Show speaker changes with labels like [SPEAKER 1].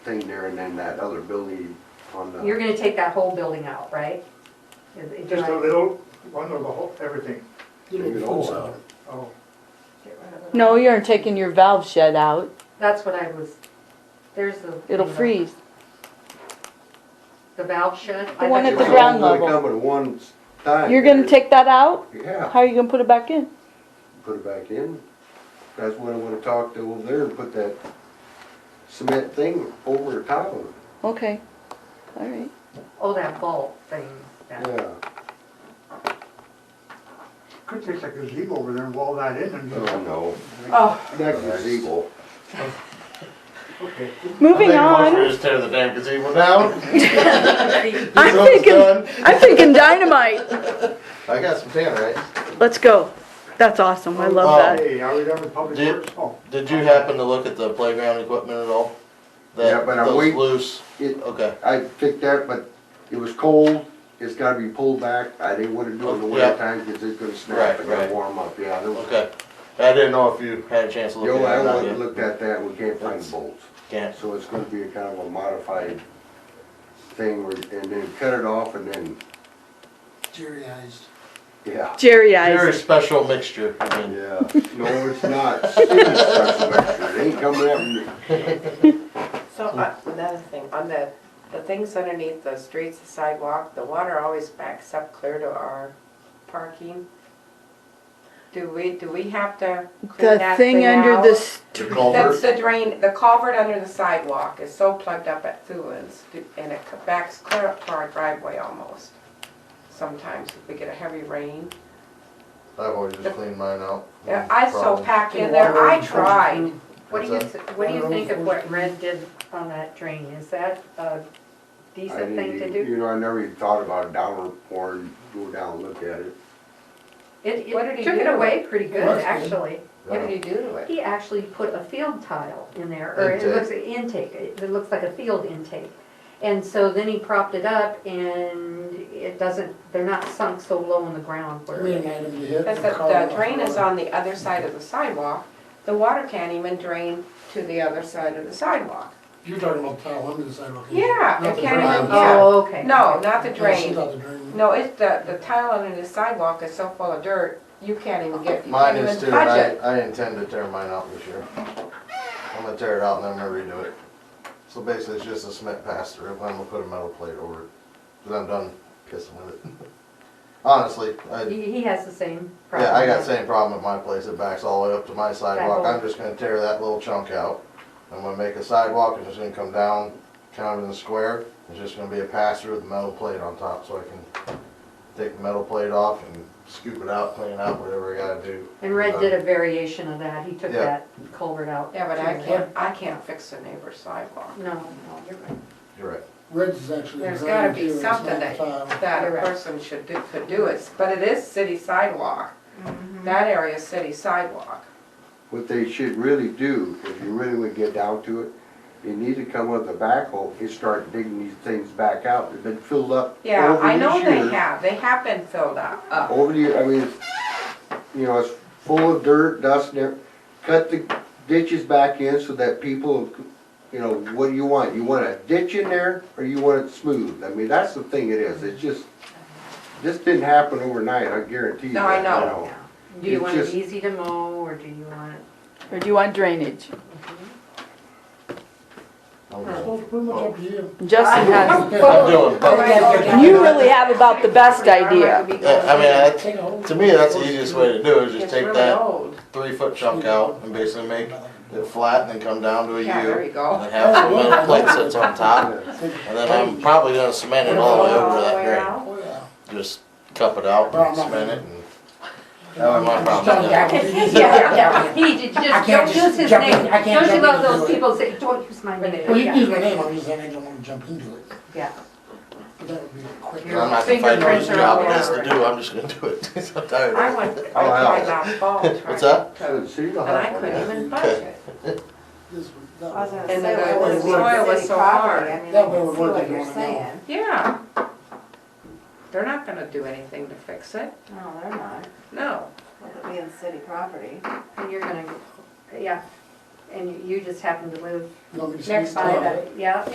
[SPEAKER 1] thing there and then that other building on
[SPEAKER 2] You're
[SPEAKER 1] the,
[SPEAKER 2] gonna take that whole building out, right? Is- is-
[SPEAKER 3] Just a little, one of the whole, everything.
[SPEAKER 1] take it all out.
[SPEAKER 3] Oh,
[SPEAKER 2] Get rid of it.
[SPEAKER 4] No, you aren't taking your valve shed out.
[SPEAKER 2] That's what I was, there's the.
[SPEAKER 4] It'll
[SPEAKER 2] the-
[SPEAKER 4] freeze.
[SPEAKER 2] The valve shed. I
[SPEAKER 4] The one
[SPEAKER 2] thought
[SPEAKER 4] at
[SPEAKER 2] you
[SPEAKER 4] the
[SPEAKER 2] were-
[SPEAKER 4] ground
[SPEAKER 1] It's all
[SPEAKER 4] level.
[SPEAKER 1] gonna Come at one time.
[SPEAKER 4] You're
[SPEAKER 5] Uh,
[SPEAKER 4] gonna take that out? How
[SPEAKER 1] Yeah,
[SPEAKER 4] are you gonna put it back in?
[SPEAKER 1] put it back in. That's what I wanna talk to over there and put that cement thing over the top of it.
[SPEAKER 4] Okay, all right.
[SPEAKER 2] Oh, that vault thing. that-
[SPEAKER 1] Yeah,
[SPEAKER 3] could take like a gazebo over there and wall that in and just,
[SPEAKER 1] oh no,
[SPEAKER 2] Oh,
[SPEAKER 1] that gazebo.
[SPEAKER 3] okay.
[SPEAKER 4] Moving
[SPEAKER 5] I think
[SPEAKER 4] on.
[SPEAKER 5] we just tear the damn gazebo down.
[SPEAKER 2] see,
[SPEAKER 5] This
[SPEAKER 4] I'm
[SPEAKER 5] one's
[SPEAKER 4] thinking,
[SPEAKER 5] done.
[SPEAKER 4] I'm thinking dynamite.
[SPEAKER 5] I got some tannerite.
[SPEAKER 4] Let's go. That's awesome. I love that.
[SPEAKER 3] Oh, Hey, I remember public
[SPEAKER 5] Did-
[SPEAKER 3] works, oh,
[SPEAKER 5] Did you happen to look at the playground equipment at all? That-
[SPEAKER 1] Yeah, but I'm
[SPEAKER 5] those
[SPEAKER 1] waiting-
[SPEAKER 5] Loose,
[SPEAKER 1] It,
[SPEAKER 5] okay.
[SPEAKER 1] I picked that, but it was cold, it's gotta be pulled back, I didn't wanna do it in the
[SPEAKER 5] Oh, yeah.
[SPEAKER 1] winter time, cause it's gonna snap
[SPEAKER 5] Right,
[SPEAKER 1] and it'll
[SPEAKER 5] right.
[SPEAKER 1] warm up, yeah. there was-
[SPEAKER 5] Okay. I didn't know if you had a chance to look
[SPEAKER 1] Yo,
[SPEAKER 5] at
[SPEAKER 1] I
[SPEAKER 5] it. or not
[SPEAKER 1] went
[SPEAKER 5] yet.
[SPEAKER 1] and looked at that, we can't find
[SPEAKER 5] That's-
[SPEAKER 1] bolts,
[SPEAKER 5] Can't.
[SPEAKER 1] so it's gonna be a kind of a modified thing, where- and then cut it off and then,
[SPEAKER 6] Jerryized.
[SPEAKER 5] Oh.
[SPEAKER 1] yeah.
[SPEAKER 4] Jerry
[SPEAKER 5] Very
[SPEAKER 4] eyes.
[SPEAKER 5] special mixture. I mean,
[SPEAKER 1] Yeah, no, it's not, Steve's special measure. it ain't coming out, in the-
[SPEAKER 7] So, uh, another thing, on the, the things underneath the streets, the sidewalk, the water always backs up clear to our parking. Do we, do we have to clean
[SPEAKER 4] The
[SPEAKER 7] that
[SPEAKER 4] thing
[SPEAKER 7] thing
[SPEAKER 4] under
[SPEAKER 7] out?
[SPEAKER 4] the, s-
[SPEAKER 5] The
[SPEAKER 7] That's
[SPEAKER 5] culvert,
[SPEAKER 7] the drain, the culvert under the sidewalk is so plugged up at Thulin's, and it co- backs clear up to our driveway almost. Sometimes if we get a heavy rain.
[SPEAKER 5] I've always just cleaned mine out.
[SPEAKER 7] Yeah, I so
[SPEAKER 5] Problem.
[SPEAKER 7] pack in there, I tried.
[SPEAKER 2] What do you, s- what do you think of what Red did on that drain? Is that a
[SPEAKER 1] I
[SPEAKER 2] decent
[SPEAKER 1] didn't
[SPEAKER 2] thing to
[SPEAKER 1] even-
[SPEAKER 2] do?
[SPEAKER 1] You know, I never even thought about downward pour and go down and look at it.
[SPEAKER 2] It,
[SPEAKER 7] What did
[SPEAKER 2] it
[SPEAKER 7] he
[SPEAKER 2] took
[SPEAKER 7] do
[SPEAKER 2] it
[SPEAKER 7] to
[SPEAKER 2] away pretty good,
[SPEAKER 6] That's good.
[SPEAKER 2] actually.
[SPEAKER 7] What did he do to it?
[SPEAKER 2] He actually put a field tile in there, or it
[SPEAKER 5] Intake.
[SPEAKER 2] looks, intake, it it looks like a field intake. And so then he propped it up and it doesn't, they're not sunk so low in the ground where.
[SPEAKER 6] Meeting item you hit.
[SPEAKER 7] Because
[SPEAKER 6] and call
[SPEAKER 7] the
[SPEAKER 6] it
[SPEAKER 7] drain is
[SPEAKER 6] off.
[SPEAKER 7] on the other side of the sidewalk, the water can't even drain to the other side of the sidewalk.
[SPEAKER 6] You're talking about the tile under the sidewalk. isn't it?
[SPEAKER 7] Yeah,
[SPEAKER 6] Not
[SPEAKER 7] it
[SPEAKER 6] the
[SPEAKER 7] can't
[SPEAKER 6] drain.
[SPEAKER 7] even-
[SPEAKER 6] Oh,
[SPEAKER 2] Oh, okay.
[SPEAKER 7] No, not the
[SPEAKER 6] She's
[SPEAKER 7] drain.
[SPEAKER 6] not the drain.
[SPEAKER 7] No, it's the, the tile under the sidewalk is so full of dirt, you can't even get, you
[SPEAKER 5] Mine
[SPEAKER 7] can't
[SPEAKER 5] is too,
[SPEAKER 7] even
[SPEAKER 5] and
[SPEAKER 7] touch
[SPEAKER 5] I,
[SPEAKER 7] it.
[SPEAKER 5] I intend to tear mine out this year. I'm gonna tear it out and then I'm gonna redo it. So basically, it's just a cement pass through, but I'm gonna put a metal plate over it, cause I'm done pissing with it. Honestly, I,
[SPEAKER 2] He, he has the same problem.
[SPEAKER 5] yeah, I got same problem at my place, it backs all the way up to my sidewalk,
[SPEAKER 2] hole.
[SPEAKER 5] I'm just gonna tear that little chunk out. I'm gonna make a sidewalk, it's just gonna come down, kind of in the square, it's just gonna be a pass through with a metal plate on top, so I can take the metal plate off and scoop it out, clean it out, whatever I gotta do.
[SPEAKER 2] And
[SPEAKER 1] Uh,
[SPEAKER 2] Red did a variation of that, he took
[SPEAKER 5] Yeah.
[SPEAKER 2] that culvert out.
[SPEAKER 7] Yeah, but
[SPEAKER 2] too.
[SPEAKER 7] I can't, I can't fix the neighbor's sidewalk.
[SPEAKER 2] No, no, you're right.
[SPEAKER 5] You're right.
[SPEAKER 6] Reds is actually.
[SPEAKER 7] There's
[SPEAKER 6] the
[SPEAKER 7] gotta
[SPEAKER 6] drain
[SPEAKER 7] be
[SPEAKER 6] too, it's
[SPEAKER 7] something
[SPEAKER 6] not the
[SPEAKER 7] that, Hmm.
[SPEAKER 6] tile.
[SPEAKER 7] that a
[SPEAKER 2] Correct.
[SPEAKER 7] person should do, could do it, but it is city sidewalk. That area is city sidewalk.
[SPEAKER 1] What they should really do, if you really would get down to it, you need to come with a backhoe and start digging these things back out. They've been filled up over these
[SPEAKER 7] Yeah, I know they
[SPEAKER 1] years.
[SPEAKER 7] have, they have been filled up, up.
[SPEAKER 1] Over the, year- I mean, you know, it's full of dirt, dust, and everything. Cut the ditches back in so that people, you know, what do you want? You want a ditch in there or you want it smooth? I mean, that's the thing it is. It just, this didn't happen overnight, I guarantee you.
[SPEAKER 7] No, I
[SPEAKER 1] that,
[SPEAKER 7] know.
[SPEAKER 1] you know.
[SPEAKER 2] Do you
[SPEAKER 1] Oh. It's
[SPEAKER 2] want it
[SPEAKER 1] just-
[SPEAKER 2] easy to mow, or do you want it?
[SPEAKER 4] or do you want drainage?
[SPEAKER 5] I'm
[SPEAKER 6] It's
[SPEAKER 5] done.
[SPEAKER 6] pretty much up to you.
[SPEAKER 4] Justin has,
[SPEAKER 5] I'm doing,
[SPEAKER 4] you really have about the best idea.
[SPEAKER 5] yeah, I mean, that's-
[SPEAKER 6] Take a whole-
[SPEAKER 5] to me, that's the easiest way to do it, is just
[SPEAKER 7] It's
[SPEAKER 5] take
[SPEAKER 7] really
[SPEAKER 5] that
[SPEAKER 7] old.
[SPEAKER 5] three foot chunk out and basically make it flat and then come down to a U.
[SPEAKER 7] Yeah, there you go.
[SPEAKER 5] And then have some metal plate sits on top, and then I'm probably gonna cement it all the way over
[SPEAKER 7] All the
[SPEAKER 5] that
[SPEAKER 7] way
[SPEAKER 5] drain.
[SPEAKER 7] around.
[SPEAKER 6] Oh, yeah.
[SPEAKER 5] Just cup it out and cement it and. That was my problem.
[SPEAKER 6] Yeah.
[SPEAKER 5] yeah.
[SPEAKER 2] Yeah, he did,
[SPEAKER 6] I
[SPEAKER 2] just, don't
[SPEAKER 6] can't just
[SPEAKER 2] use his
[SPEAKER 6] jump in-
[SPEAKER 2] name.
[SPEAKER 6] I can't
[SPEAKER 2] Don't you
[SPEAKER 6] jump
[SPEAKER 2] love
[SPEAKER 6] in and
[SPEAKER 2] those
[SPEAKER 6] do it.
[SPEAKER 2] people say, don't use my name?
[SPEAKER 6] Well, you can use my
[SPEAKER 2] Yeah.
[SPEAKER 6] name, I'm just saying I don't wanna jump into it,
[SPEAKER 2] Yeah.
[SPEAKER 6] but that would be quick.
[SPEAKER 5] I'm not gonna find whose
[SPEAKER 7] Fingerprints are
[SPEAKER 5] job it
[SPEAKER 7] all
[SPEAKER 5] is to
[SPEAKER 7] over.
[SPEAKER 5] do, I'm just gonna do it. I'm tired
[SPEAKER 7] I
[SPEAKER 5] of it.
[SPEAKER 7] went, I
[SPEAKER 1] Oh, yeah.
[SPEAKER 7] tried last fall to try
[SPEAKER 5] What's that?
[SPEAKER 1] So the
[SPEAKER 7] to-
[SPEAKER 1] city will
[SPEAKER 7] And
[SPEAKER 1] have
[SPEAKER 7] I
[SPEAKER 1] one.
[SPEAKER 7] couldn't even budget.
[SPEAKER 6] This would- that
[SPEAKER 8] I was
[SPEAKER 6] would-
[SPEAKER 8] gonna
[SPEAKER 7] And
[SPEAKER 8] say, well,
[SPEAKER 7] the-
[SPEAKER 6] the
[SPEAKER 8] it's
[SPEAKER 7] soil was
[SPEAKER 8] city
[SPEAKER 7] so
[SPEAKER 8] property.
[SPEAKER 7] hard.
[SPEAKER 8] I mean,
[SPEAKER 6] That
[SPEAKER 8] I
[SPEAKER 6] way it
[SPEAKER 8] can
[SPEAKER 6] would
[SPEAKER 8] see
[SPEAKER 6] work
[SPEAKER 8] what
[SPEAKER 6] if you
[SPEAKER 8] you're
[SPEAKER 6] wanna know.
[SPEAKER 8] saying.
[SPEAKER 7] Yeah. They're not gonna do anything to fix it,
[SPEAKER 8] No, they're not,
[SPEAKER 7] no.
[SPEAKER 8] with it being city property.
[SPEAKER 2] And you're gonna, yeah, and you- you just happen to live
[SPEAKER 6] You want me to
[SPEAKER 2] next
[SPEAKER 6] sneak
[SPEAKER 2] by
[SPEAKER 6] up?
[SPEAKER 2] that, yeah?